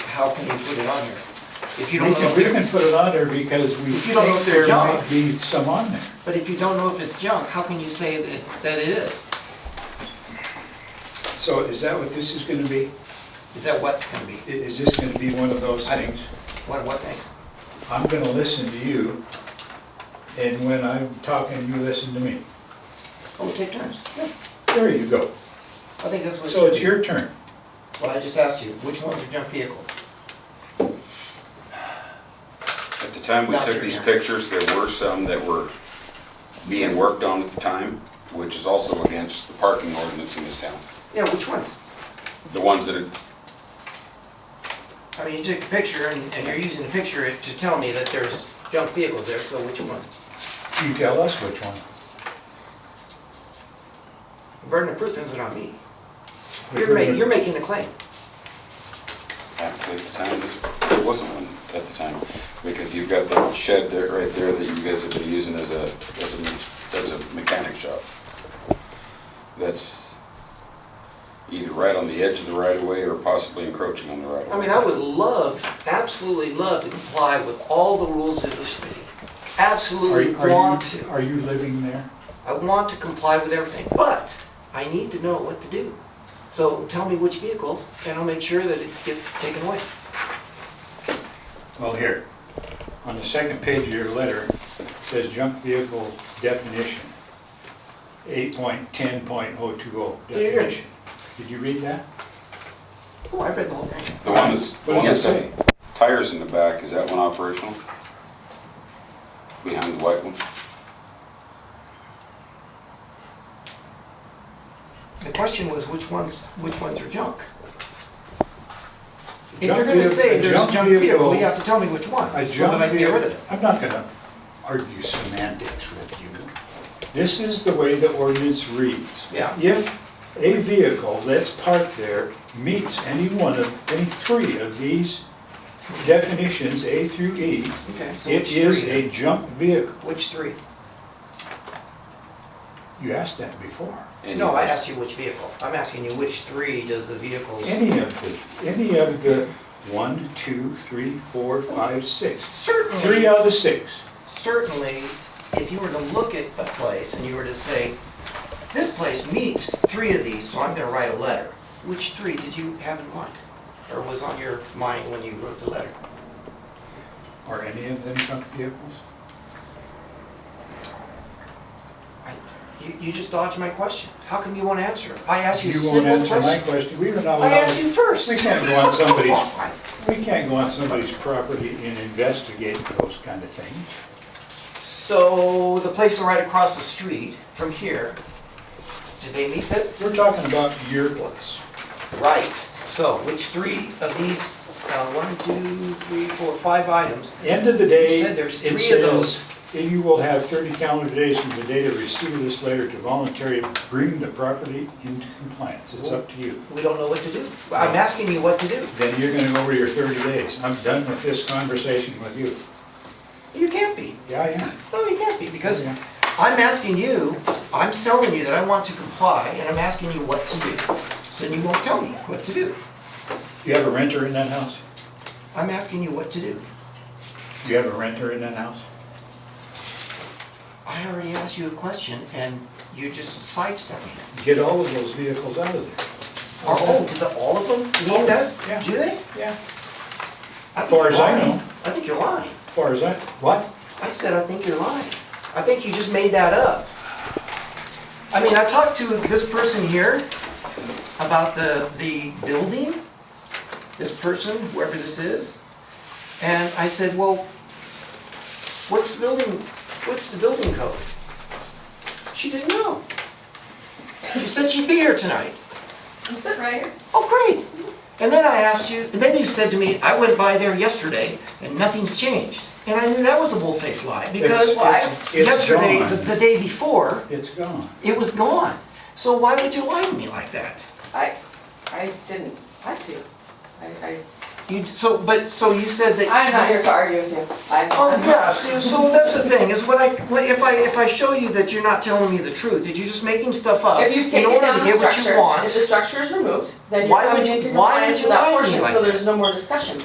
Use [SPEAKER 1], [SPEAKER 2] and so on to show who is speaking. [SPEAKER 1] how can you put it on here? If you
[SPEAKER 2] We
[SPEAKER 1] don't know,
[SPEAKER 2] can, we
[SPEAKER 1] if
[SPEAKER 2] can
[SPEAKER 1] they're-
[SPEAKER 2] put it on there because we
[SPEAKER 1] If you don't know
[SPEAKER 2] think
[SPEAKER 1] if they're
[SPEAKER 2] there might
[SPEAKER 1] junk.
[SPEAKER 2] be some on there.
[SPEAKER 1] but if you don't know if it's junk, how can you say that, that it is?
[SPEAKER 2] So is that what this is gonna be?
[SPEAKER 1] Is that what's gonna be?
[SPEAKER 2] I- Is this gonna be one of those
[SPEAKER 1] I-
[SPEAKER 2] things?
[SPEAKER 1] What, what things?
[SPEAKER 2] I'm gonna listen to you, and when I'm talking, you listen to me.
[SPEAKER 1] Oh, we take turns. Yeah.
[SPEAKER 2] There you go.
[SPEAKER 1] I think that's what it
[SPEAKER 2] So it's
[SPEAKER 1] should be.
[SPEAKER 2] your turn.
[SPEAKER 1] Well, I just asked you, which one's your junk vehicle?
[SPEAKER 3] At the time we
[SPEAKER 1] Not
[SPEAKER 3] took
[SPEAKER 1] true,
[SPEAKER 3] these
[SPEAKER 1] yeah.
[SPEAKER 3] pictures, there were some that were being worked on at the time, which is also against the parking ordinance in this town.
[SPEAKER 1] Yeah, which ones?
[SPEAKER 3] The ones that,
[SPEAKER 1] I mean, you took a picture and, and you're using the picture to tell me that there's junk vehicles there, so which one?
[SPEAKER 2] You tell us which one.
[SPEAKER 1] The burden of proof isn't on me. You're ma, you're making the claim.
[SPEAKER 3] actually, at the time, this- there wasn't one at the time, because you've got that shed there, right there, that you guys have been using as a, as a, me- as a mechanic shop. That's either right on the edge of the right of way or possibly encroaching on the right of way.
[SPEAKER 1] I mean, I would love, absolutely love to comply with all the rules of the city.
[SPEAKER 2] Are
[SPEAKER 1] Absolutely
[SPEAKER 2] you- are you-
[SPEAKER 1] want to.
[SPEAKER 2] Are you living there?
[SPEAKER 1] I want to comply with everything, but I need to know what to do. So tell me which vehicle, and I'll make sure that it gets taken away.
[SPEAKER 2] Well, here, on the second page of your letter, it says junk vehicle definition, eight point ten point oh two oh
[SPEAKER 1] Yeah, yeah.
[SPEAKER 2] definition. Did you read that?
[SPEAKER 1] Oh, I read the whole thing.
[SPEAKER 3] The one that's, the
[SPEAKER 2] What
[SPEAKER 3] one
[SPEAKER 2] does
[SPEAKER 3] that's
[SPEAKER 2] it
[SPEAKER 3] got tires in the back, is that one operational? Behind the white one?
[SPEAKER 1] The question was which ones, which ones are junk? If
[SPEAKER 2] Junk
[SPEAKER 1] you're gonna say
[SPEAKER 2] vehicle-
[SPEAKER 1] there's a junk vehicle, you have to tell me which one,
[SPEAKER 2] A
[SPEAKER 1] so that I
[SPEAKER 2] junk
[SPEAKER 1] can get rid of
[SPEAKER 2] vehicle,
[SPEAKER 1] it.
[SPEAKER 2] I'm not gonna argue semantics with you. This is the way the ordinance reads.
[SPEAKER 1] Yeah.
[SPEAKER 2] If a vehicle that's parked there meets any one of, any three of these definitions, A through E,
[SPEAKER 1] Okay, so
[SPEAKER 2] it
[SPEAKER 1] which
[SPEAKER 2] is
[SPEAKER 1] three?
[SPEAKER 2] a junk vehicle.
[SPEAKER 1] Which three?
[SPEAKER 2] You asked that before.
[SPEAKER 3] And
[SPEAKER 1] No, I asked you which vehicle. I'm asking you which three does the vehicles?
[SPEAKER 2] Any of the, any of the one, two, three, four, five, six. Three
[SPEAKER 1] Certainly,
[SPEAKER 2] out of the six.
[SPEAKER 1] certainly, if you were to look at a place and you were to say, this place meets three of these, so I'm gonna write a letter. Which three did you have in mind? Or was on your mind when you wrote the letter?
[SPEAKER 2] Are any of them junk vehicles?
[SPEAKER 1] I- You, you just dodged my question. How come you won't answer? I asked you a
[SPEAKER 2] You won't
[SPEAKER 1] simple
[SPEAKER 2] answer my
[SPEAKER 1] question.
[SPEAKER 2] question. We were not
[SPEAKER 1] I
[SPEAKER 2] allowed,
[SPEAKER 1] asked you first.
[SPEAKER 2] we can't go on somebody's,
[SPEAKER 1] Come on.
[SPEAKER 2] we can't go on somebody's property and investigate those kind of things.
[SPEAKER 1] So the place right across the street from here, did they meet that?
[SPEAKER 2] We're talking about your place.
[SPEAKER 1] Right. So which three of these, uh, one, two, three, four, five items?
[SPEAKER 2] End of the day,
[SPEAKER 1] You said
[SPEAKER 2] it
[SPEAKER 1] there's three of
[SPEAKER 2] says, you will have thirty calendar days from the date of receipt of this letter to voluntarily bring the property into compliance. It's up to you.
[SPEAKER 1] We don't know what to do. I'm asking you what to do.
[SPEAKER 2] Then you're gonna go over your thirty days. I'm done with this conversation with you.
[SPEAKER 1] You can't be.
[SPEAKER 2] Yeah, I am.
[SPEAKER 1] No, you can't be because I'm asking you, I'm telling you that I want to comply and I'm asking you what to do. So you won't tell me what to do.
[SPEAKER 2] You have a renter in that house?
[SPEAKER 1] I'm asking you what to do.
[SPEAKER 2] You have a renter in that house?
[SPEAKER 1] I already asked you a question and you just sidestepped me.
[SPEAKER 2] Get all of those vehicles out of
[SPEAKER 1] Are, oh, do the, all of them need that?
[SPEAKER 2] Yeah.
[SPEAKER 1] Do they?
[SPEAKER 2] there. Yeah.
[SPEAKER 1] I think
[SPEAKER 2] Far as
[SPEAKER 1] you're
[SPEAKER 2] I
[SPEAKER 1] lying.
[SPEAKER 2] know.
[SPEAKER 1] I think you're lying.
[SPEAKER 2] As far as I, what?
[SPEAKER 1] I said, I think you're lying. I think you just made that up. I mean, I talked to this person here about the, the building, this person, whoever this is. And I said, well, what's the building, what's the building code? She didn't know. She said she'd be here tonight.
[SPEAKER 4] I'm sitting right here.
[SPEAKER 1] Oh, great. And then I asked you, and then you said to me, I went by there yesterday and nothing's changed. And I knew that was a bull-faced lie because
[SPEAKER 2] It's- it's- it's
[SPEAKER 1] yesterday,
[SPEAKER 2] gone.
[SPEAKER 1] the, the day before,
[SPEAKER 2] It's gone.
[SPEAKER 1] it was gone. So why would you lie to me like that?
[SPEAKER 4] I, I didn't have to. I, I,
[SPEAKER 1] You, d- so, but, so you said that.
[SPEAKER 4] I'm not here to argue with you. I,
[SPEAKER 1] Oh,
[SPEAKER 4] I'm
[SPEAKER 1] yeah,
[SPEAKER 4] not.
[SPEAKER 1] see, so that's the thing, is when I, when- if I, if I show you that you're not telling me the truth, that you're just making stuff up
[SPEAKER 4] If you've
[SPEAKER 1] Uh, in
[SPEAKER 4] taken
[SPEAKER 1] order
[SPEAKER 4] down
[SPEAKER 1] to
[SPEAKER 4] the
[SPEAKER 1] get what you
[SPEAKER 4] structure,
[SPEAKER 1] want.
[SPEAKER 4] if the structure is removed, then you're
[SPEAKER 1] Why would
[SPEAKER 4] coming
[SPEAKER 1] you-
[SPEAKER 4] into
[SPEAKER 1] why would
[SPEAKER 4] compliance
[SPEAKER 1] you
[SPEAKER 4] with
[SPEAKER 1] lie
[SPEAKER 4] that
[SPEAKER 1] to me
[SPEAKER 4] portion,
[SPEAKER 1] like
[SPEAKER 4] so
[SPEAKER 1] that?
[SPEAKER 4] there's no more discussion.